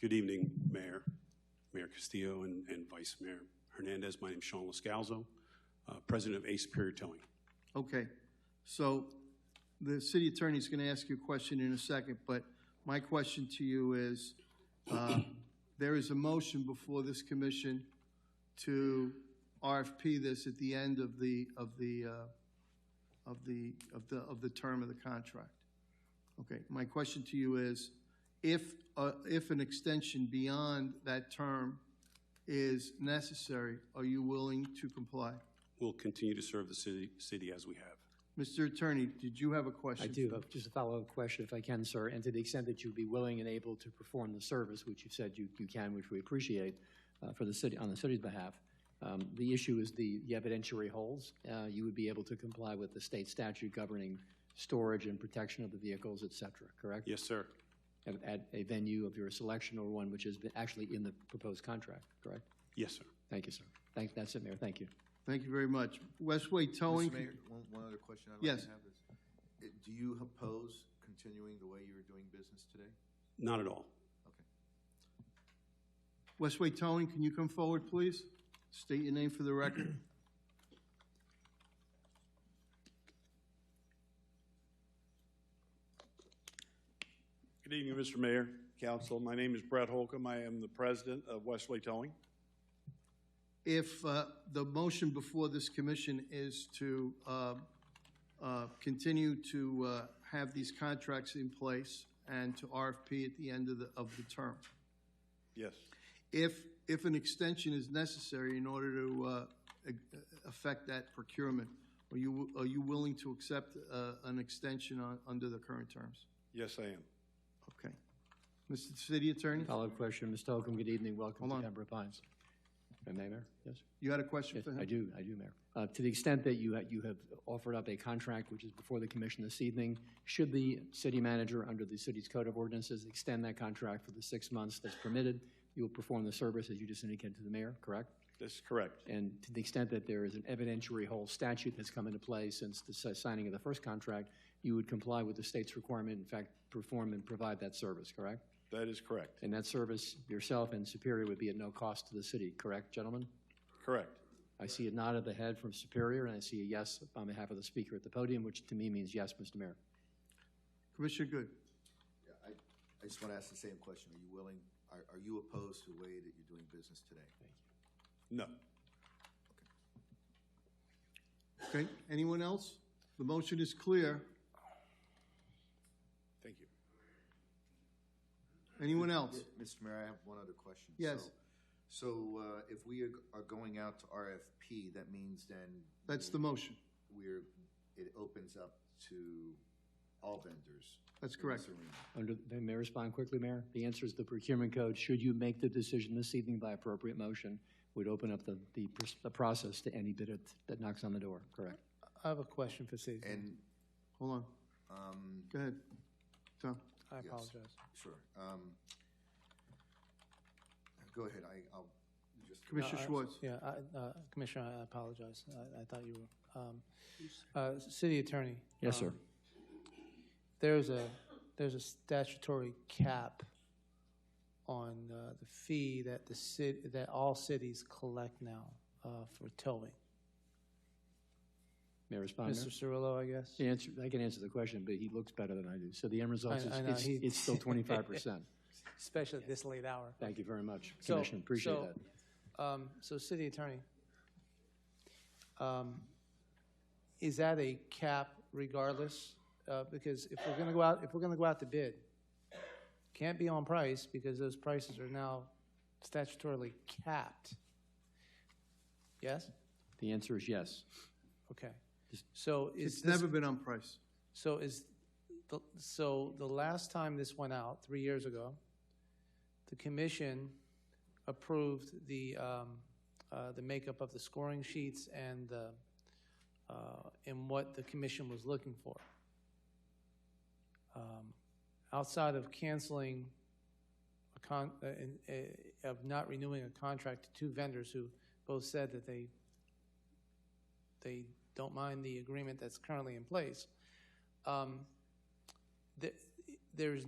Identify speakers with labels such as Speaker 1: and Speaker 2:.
Speaker 1: Good evening, Mayor, Mayor Castillo and, and Vice Mayor Hernandez. My name's Sean Lascalzo, uh, President of Ace Superior Towing.
Speaker 2: Okay, so the city attorney's going to ask you a question in a second, but my question to you is, uh, there is a motion before this commission to RFP this at the end of the, of the, uh, of the, of the, of the term of the contract. Okay, my question to you is, if, uh, if an extension beyond that term is necessary, are you willing to comply?
Speaker 1: We'll continue to serve the city, city as we have.
Speaker 2: Mr. Attorney, did you have a
Speaker 3: I
Speaker 2: question?
Speaker 3: do have just a follow-up question, if I can, sir, and to the extent that you'd be willing and able to perform the service, which you've said you, you can, which we appreciate, uh, for the city, on the city's behalf. Um, the issue is the, the evidentiary holds. Uh, you would be able to comply with the state statute governing storage and protection of the vehicles, et cetera, correct?
Speaker 1: Yes, sir.
Speaker 3: At, at a venue of your selection or one which is actually in the proposed contract, correct?
Speaker 1: Yes, sir.
Speaker 3: Thank you, sir. Thank, that's it, Mayor. Thank you.
Speaker 2: Thank you very much. Westway Towing,
Speaker 4: Mr. Mayor, one, one other question I'd like
Speaker 2: Yes.
Speaker 4: to have is, uh, do you oppose continuing the way you were doing business today?
Speaker 1: Not at all.
Speaker 4: Okay.
Speaker 2: Westway Towing, can you come forward, please? State your name for the record.
Speaker 5: Good evening, Mr. Mayor, Council. My name is Brett Holcomb. I am the president of Wesley Towing.
Speaker 2: If uh, the motion before this commission is to uh, uh, continue to uh, have these contracts in place and to RFP at the end of the, of the term,
Speaker 5: Yes,
Speaker 2: if, if an extension is necessary in order to uh, e- affect that procurement, are you, are you willing to accept uh, an extension on, under the current terms?
Speaker 5: yes, I am.
Speaker 2: Okay. Mr. City Attorney?
Speaker 3: Follow-up question, Mr. Holcomb, good evening. Welcome
Speaker 2: Hold
Speaker 3: to
Speaker 2: on.
Speaker 3: Pembroke Pines. Uh, Mayor, yes?
Speaker 2: You had a question
Speaker 3: Yes,
Speaker 2: for him?
Speaker 3: I do, I do, Mayor. Uh, To the extent that you, ha- you have offered up a contract which is before the commission this evening, should the city manager, under the city's code of ordinances, extend that contract for the six months that's permitted, you will perform the service as you just indicated to the mayor, correct?
Speaker 5: That's correct.
Speaker 3: And to the extent that there is an evidentiary whole statute that's come into play since the si- signing of the first contract, you would comply with the state's requirement, in fact, perform and provide that service, correct?
Speaker 5: That is correct.
Speaker 3: And that service yourself and Superior would be at no cost to the city, correct, gentlemen?
Speaker 5: Correct.
Speaker 3: I see a nod of the head from Superior, and I see a yes on behalf of the speaker at the podium, which to me means yes, Mr. Mayor.
Speaker 2: Commissioner Good,
Speaker 4: I, I just want to ask the same question. Are you willing, are, are you opposed to the way that you're doing business today?
Speaker 5: No.
Speaker 2: okay, anyone else? The motion is clear.
Speaker 5: Thank you.
Speaker 2: Anyone else?
Speaker 4: Mr. Mayor, I have one other question.
Speaker 2: Yes.
Speaker 4: So- So, uh, if we are, are going out to RFP, that means then
Speaker 2: That's the motion.
Speaker 4: we're, it opens up to all vendors.
Speaker 2: That's
Speaker 4: in this
Speaker 2: correct.
Speaker 4: arena.
Speaker 3: Under, may I respond quickly, Mayor? The answer is the procurement code, should you make the decision this evening by appropriate motion, would open up the, the, pr- the process to any bidder that knocks on the door, correct?
Speaker 6: I have a question for Steve.
Speaker 4: And,
Speaker 2: Hold on,
Speaker 4: um,
Speaker 2: go ahead. Tom,
Speaker 6: I
Speaker 4: yes.
Speaker 6: apologize.
Speaker 4: Sure. Um, Go ahead, I, I'll just.
Speaker 2: Commissioner
Speaker 6: Uh, I-
Speaker 2: Schwartz.
Speaker 6: Yeah, I, uh, Commissioner, I apologize. I, I thought you were, um, uh, city attorney.
Speaker 3: Yes,
Speaker 6: um,
Speaker 3: sir.
Speaker 6: There's a, there's a statutory cap on, uh, the fee that the city, that all cities collect now, uh, for towing.
Speaker 3: May I respond, Mayor?
Speaker 6: Mr. Cirillo, I guess?
Speaker 3: The answer, I can answer the question, but he looks better than I do. So the end result is,
Speaker 6: I- I know,
Speaker 3: it's,
Speaker 6: he-
Speaker 3: it's still twenty-five percent.
Speaker 6: Especially at this late hour.
Speaker 3: Thank you very much,
Speaker 6: So-
Speaker 3: Commissioner, appreciate
Speaker 6: so,
Speaker 3: that.
Speaker 6: Um, so city attorney, um, is that a cap regardless? Uh, because if we're gonna go out, if we're gonna go out to bid, can't be on price because those prices are now statutorily capped. Yes?
Speaker 3: The answer is yes.
Speaker 6: Okay. So is
Speaker 2: It's
Speaker 6: this,
Speaker 2: never been on price.
Speaker 6: so is, the- so the last time this went out, three years ago, the commission approved the, um, uh, the makeup of the scoring sheets and the, uh, and what the commission was looking for. Um, Outside of canceling a con, uh, in- uh, of not renewing a contract to two vendors who both said that they, they don't mind the agreement that's currently in place. um, th- There's